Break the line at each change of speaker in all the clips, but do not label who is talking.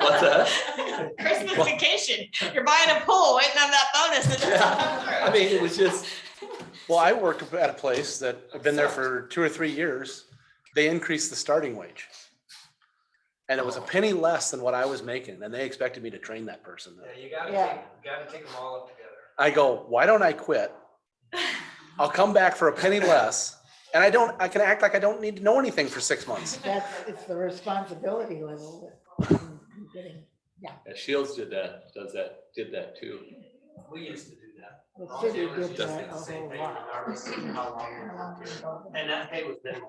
What's that?
Christmas vacation, you're buying a pool, waiting on that bonus. that doesn't come
I
through.
mean, it was just,
Well, I work at a place that I've been there for two or three years. They increased the starting wage. And it was a penny less than what I was making and they expected me to train that person.
Yeah, you gotta
Yeah.
take, you gotta take them all up together.
I go, why don't I quit? I'll come back for a penny less and I don't, I can act like I don't need to know anything for six months.
That's, it's the responsibility level that I'm getting.
Shields did that, does that, did that too.
We used to do that.
The
All
city
dealers
did
used to
that
do
a
the same
whole
thing
lot.
regardless of how long we
How long
worked here.
ago?
And that pay was minimum.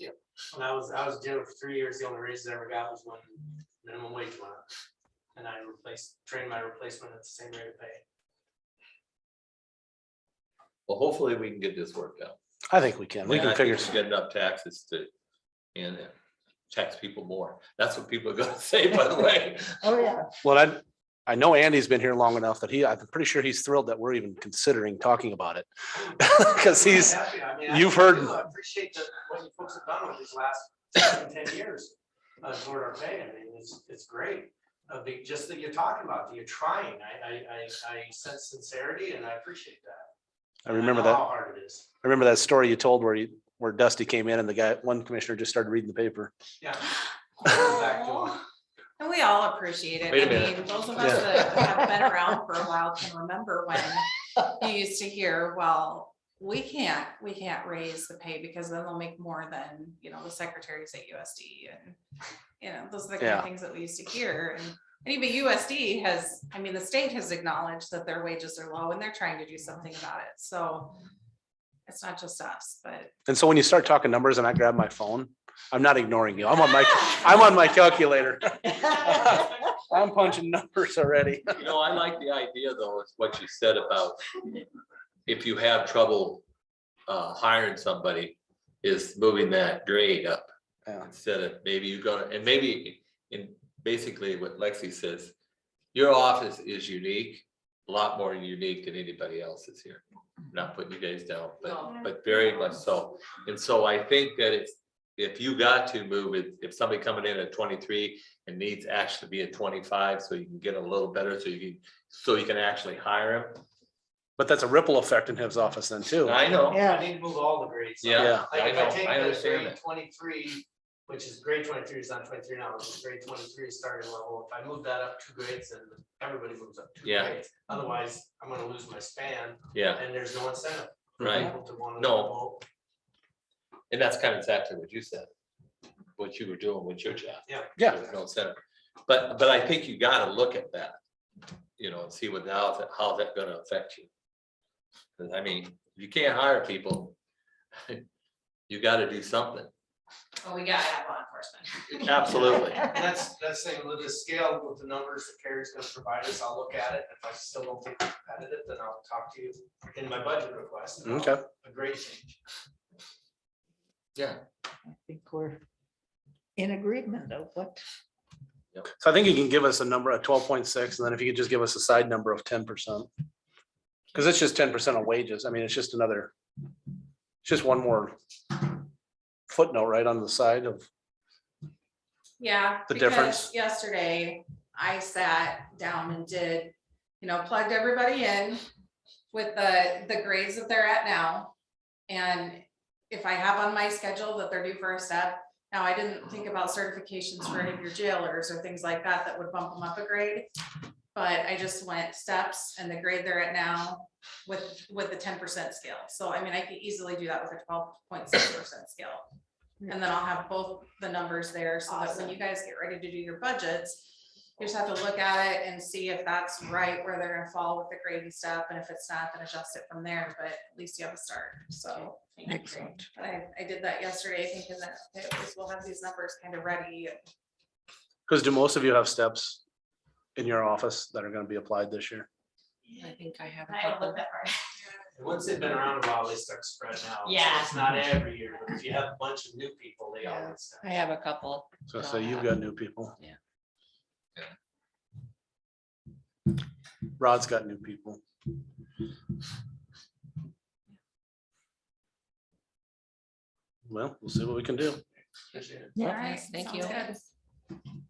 Yeah. When I was, I was doing it for three years, the only raise I ever got was when minimum wage went up. And I replaced, trained my replacement at the same rate of pay.
Well, hopefully we can get this worked out.
I think we can. We
Yeah, I
can
think
figure.
we Get enough taxes to, and uh, tax people more. That's what people are gonna say, by the way.
Oh, yeah.
Well, I, I know Andy's been here long enough that he, I'm pretty sure he's thrilled that we're even considering talking about it. Cause he's,
I'm happy. I mean, I
you've
really
heard-
do. I appreciate that what you folks have done with these last seven, ten years. Uh, toward our pay, I mean, it's, it's great. Uh, be- just that you're talking about, that you're trying. I, I, I, I sense sincerity and I appreciate that.
I remember
know
that.
How hard it is.
I remember that story you told where you, where Dusty came in and the guy, one commissioner just started reading the paper.
Yeah. Back to
Aw. And we all appreciate it.
Wait a
I
minute.
mean, Those of us that have been around for a while can remember when you used to hear, well, we can't, we can't raise the pay because then they'll make more than, you know, the secretaries at USD and, you know, those are the kind
Yeah.
of things that we used to hear. And and even USD has, I mean, the state has acknowledged that their wages are low and they're trying to do something about it. So it's not just us, but.
And so when you start talking numbers and I grab my phone, I'm not ignoring you. I'm on my, I'm on my calculator. I'm punching numbers already.
You know, I like the idea though, is what you said about if you have trouble uh, hiring somebody, is moving that grade up.
Yeah.
Instead of maybe you go, and maybe in basically what Lexi says, your office is unique, a lot more unique than anybody else's here. Not putting you guys down, but,
No.
but very much so. And so I think that it's, if you got to move it, if somebody coming in at twenty-three and needs actually be at twenty-five, so you can get a little better, so you can, so you can actually hire him.
But that's a ripple effect in his office then too.
I know,
I
Yeah.
need to move all the grades. up.
yeah,
Yeah.
I
Like if
know,
take
I
the
understand
grade
that.
Twenty-three, which is grade twenty-three is not twenty-three now, which is grade twenty-three starting level. If I move that up two grades, then everybody moves up two
Yeah.
grades. Otherwise, I'm gonna lose my span
yeah,
and there's no incentive. for
right.
people to wanna
No.
vote.
And that's kind of exactly what you said, what you were doing with your job.
Yeah.
Yeah.
There's No center, but, but I think you gotta look at that, you know, and see what, how, that- how's that gonna affect you? 'Cause, I mean, you can't hire people. You gotta do something,
Well, we gotta have law enforcement.
absolutely,
And that's, that's saying with the scale, with the numbers that Carrie's gonna provide us, I'll look at it. If I still don't think it's competitive, then I'll talk to you in my budget request. about
Okay.
A grade change.
yeah.
I think we're in agreement of what,
So I think you can give us a number of twelve point six and then if you could just give us a side number of ten percent. Cause it's just ten percent of wages. I mean, it's just another, it's just one more footnote right on the side of,
Yeah.
The
because
difference.
Yesterday, I sat down and did, you know, plugged everybody in with the, the grades that they're at now. And if I have on my schedule that they're due for a step, now I didn't think about certifications for any of your jailers or things like that that would bump them up a grade. But I just went steps and the grade they're at now with, with the ten percent scale. So I mean, I could easily do that with a twelve point six percent scale. And then I'll have both the numbers there so that when you guys get ready to do your budgets, you just have to look at it and see if that's right, where they're gonna fall with the grade and stuff. And if it's not, then adjust it from there, but at least you have a start, so.
excellent.
But I, I did that yesterday thinking that, okay, at least we'll have these numbers kind of ready.
cause do most of you have steps in your office that are gonna be applied this year?
I think I have
I
a
haven't
couple.
looked that far.
And once they've been around a while, they start spreading out. So
Yeah.
It's not every year, but if you have a bunch of new people, they all. get stuff.
I have a couple.
So, so you've got new people.
Yeah.
Yeah.
Rod's got new people. Well, we'll see what we can do.
Appreciate it.
Yeah.
All right,
Thank
sounds
you.
good.